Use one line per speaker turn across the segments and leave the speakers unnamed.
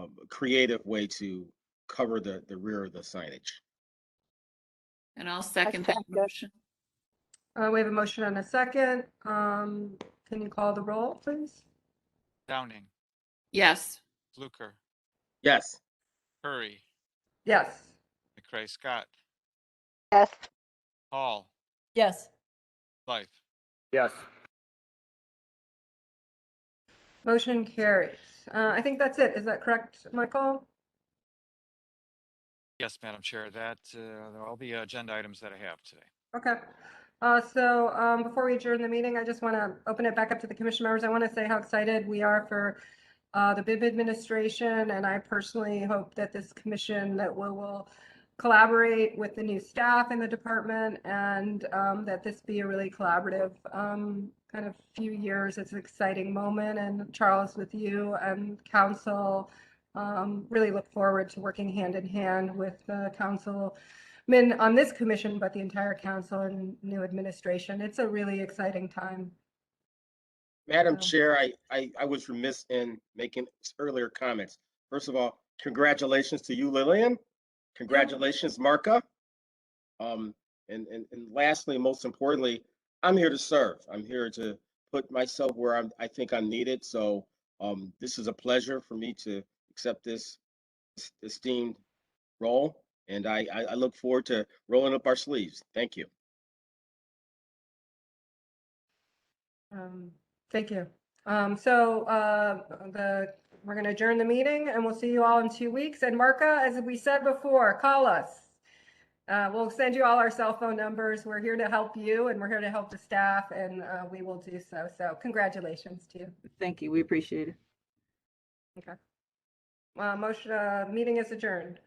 um, creative way to cover the, the rear of the signage.
And I'll second that
second.
motion.
Uh, we have a motion and a second. Um, can you call the roll, please?
Downing,
Yes,
Fluker,
Yes,
Curry,
Yes.
McCray Scott,
Yes.
Hall,
Yes.
Blythe.
Yes.
Motion carries. Uh, I think that's it. Is that correct, Michael?
Yes, Madam Chair, that, uh, are all the agenda items that I have today.
Okay. Uh, so, um, before we adjourn the meeting, I just want to open it back up to the commission members. I want to say how excited we are for uh, the BIB administration, and I personally hope that this commission that we will collaborate with the new staff in the department and, um, that this be a really collaborative, um, kind of few years. It's an exciting moment and Charles with you and council, um, really look forward to working hand in hand with the council men on this commission, but the entire council and new administration. It's a really exciting time.
Madam
Wow.
Chair, I, I, I was remiss in making earlier comments. First of all, congratulations to you, Lillian. Congratulations, Marka. Um, and, and, and lastly, most importantly, I'm here to serve. I'm here to put myself where I'm, I think I'm needed. So, um, this is a pleasure for me to accept this esteemed role. And I, I, I look forward to rolling up our sleeves. Thank you.
Um, Thank you. Um, So uh, the, we're going to adjourn the meeting and we'll see you all in two weeks. And Marka, as we said before, call us. Uh, We'll send you all our cell phone numbers. We're here to help you and we're here to help the staff and uh, we will do so. So congratulations to you.
Thank you. We appreciate it.
Uh, Motion, uh, meeting is adjourned.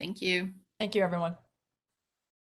thank you.
Thank you, everyone.